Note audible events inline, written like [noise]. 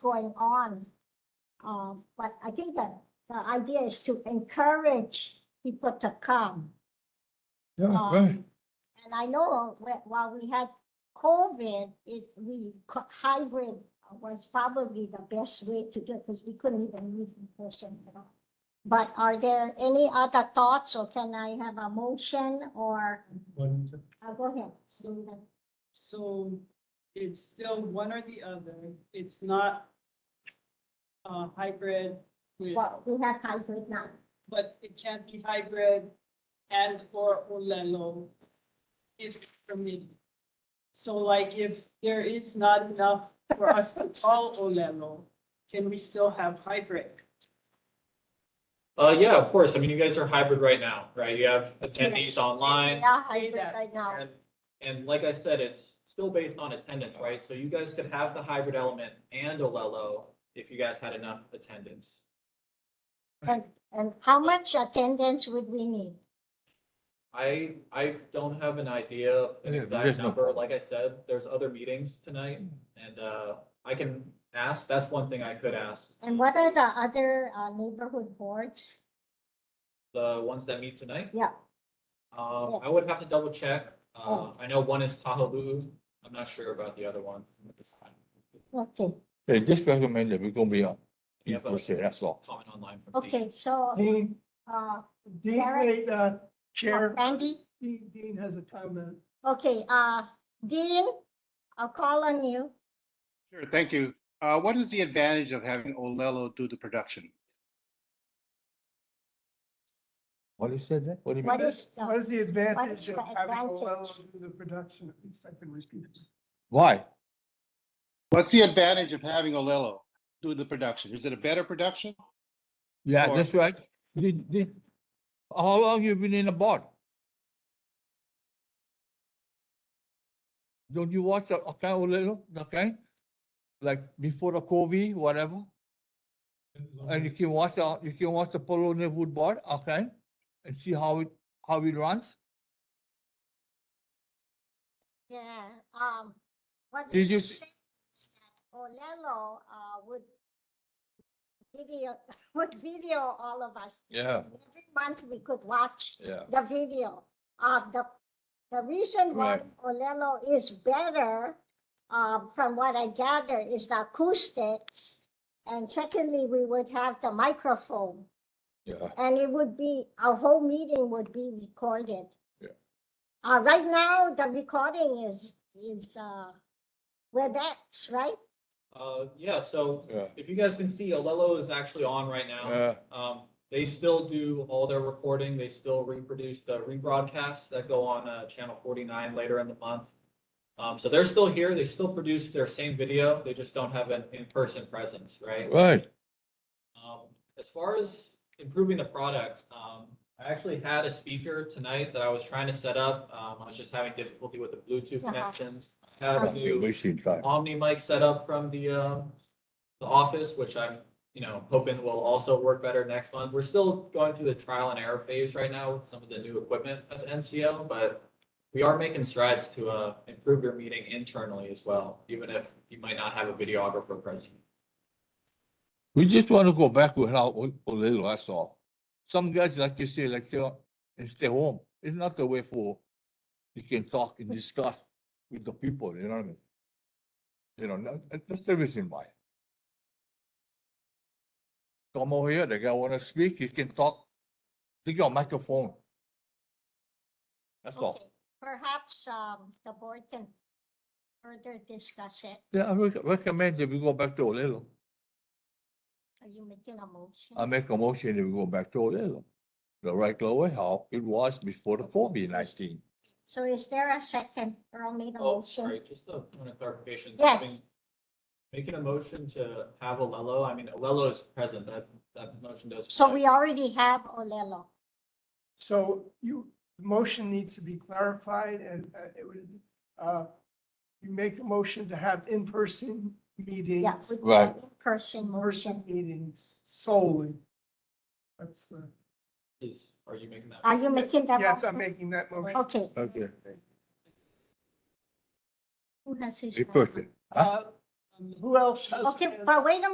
going on. Um, but I think that the idea is to encourage people to come. Yeah, Um, right. And I know whe- while we had COVID, it, we, co- hybrid was probably the best way to do it because we couldn't even meet in person at all. But are there any other thoughts or can I have a motion or, One- uh, go ahead. Linda. So it's still one or the other. It's not uh, hybrid, with- Well, we have hybrid now. but it can't be hybrid and or Olelo if permitted. So like if there is not enough for us to call Olelo, can we still have hybrid? Uh, yeah, of course. I mean, you guys are hybrid right now, right? You have attendees We online. are say hybrid that, right now. And, and like I said, it's still based on attendance, right? So you guys could have the hybrid element and Olelo if you guys had enough attendance. And, and how much attendance would we need? I, I don't have an idea of an Yeah, exact there's no- number. Like I said, there's other meetings tonight and, uh, I can ask, that's one thing I could ask. And what are the other uh, neighborhood boards? The ones that meet tonight? Yeah, Um, Yes. I would have to double check. Uh, Oh. I know one is Kahaluu. I'm not sure about the other one. okay, They just recommended we're gonna be on, Yeah, you but- that's all. Comment online from. Dean. okay, so, Dean, uh, Dean, Derek? wait, uh, Chair, Andy? Dean, Dean has a comment. Okay, uh, Dean, I'll call on you. Sure, thank you. Uh, what is the advantage of having Olelo do the production? What you said that? What do you What mean? is, What the- is the What is advantage of the having advantage? Olelo do the production? At least I can repeat it. Why? What's the advantage of having Olelo do the production? Is it a better production? Yeah, Or- that's right. Did, did, how long you been in the board? Don't you watch the, okay, a little, okay? Like before the COVID, whatever? And you can watch, the you can watch the Polo Neighborhood Board, okay? And see how it, how it runs? yeah, um, what Did you you're s- saying is that Olelo, uh, would video, [laughs] would video all of us. Yeah, Every month we could watch yeah. the video. Uh, the, the reason why Olelo is better, um, from what I gather, is the acoustics. And secondly, we would have the microphone. Yeah. And it would be, our whole meeting would be recorded. Yeah. Uh, right now, the recording is, is, uh, WebEx, right? Uh, yeah, so Yeah. if you guys can see, Olelo is actually on right now. Yeah. Um, they still do all their recording. They still reproduce the rebroadcasts that go on, uh, channel forty-nine later in the month. Um, so they're still here. They still produce their same video. They just don't have an in-person presence, right? Right. Um, as far as improving the product, um, I actually had a speaker tonight that I was trying to set up. Um, I was just having difficulty with the Bluetooth Uh-huh. connections. I Have a new Wasting time. Omni mic set up from the, um, the office, which I'm, you know, hoping will also work better next month. We're still going through the trial and error phase right now with some of the new equipment at the NCO, but we are making strides to, uh, improve your meeting internally as well, even if you might not have a videographer present. We just want to go back without a a little, that's all. Some guys, like you say, like, say, and stay home. It's not the way for, you can talk and discuss with the people, you know what I mean? You know, that- that- that's the reason why. Come over here, the guy wanna speak, you can talk, take your microphone. That's all. Okay. Perhaps, um, the board can further discuss it. Yeah, I rec- recommend that we go back to Olelo. Are you making a motion? I make a motion that we go back to Olelo. The regular way how it was before the COVID nineteen. So is there a second? Earl made a Oh, motion. sorry, just a point of clarification. Yes. Having- Making a motion to have Olelo, I mean, Olelo is present, that, that motion does. So we already have Olelo. So you, the motion needs to be clarified and uh, it would, uh, you make a motion to have in-person meetings. Yeah. we- Right. Person In-person motion. meetings solely. That's, uh, Is, are you making that? Are you making that? yes, I'm motion? making that motion. Okay. Okay. Who has his? Be perfect. Huh? Uh, Who else has? Okay, but wait a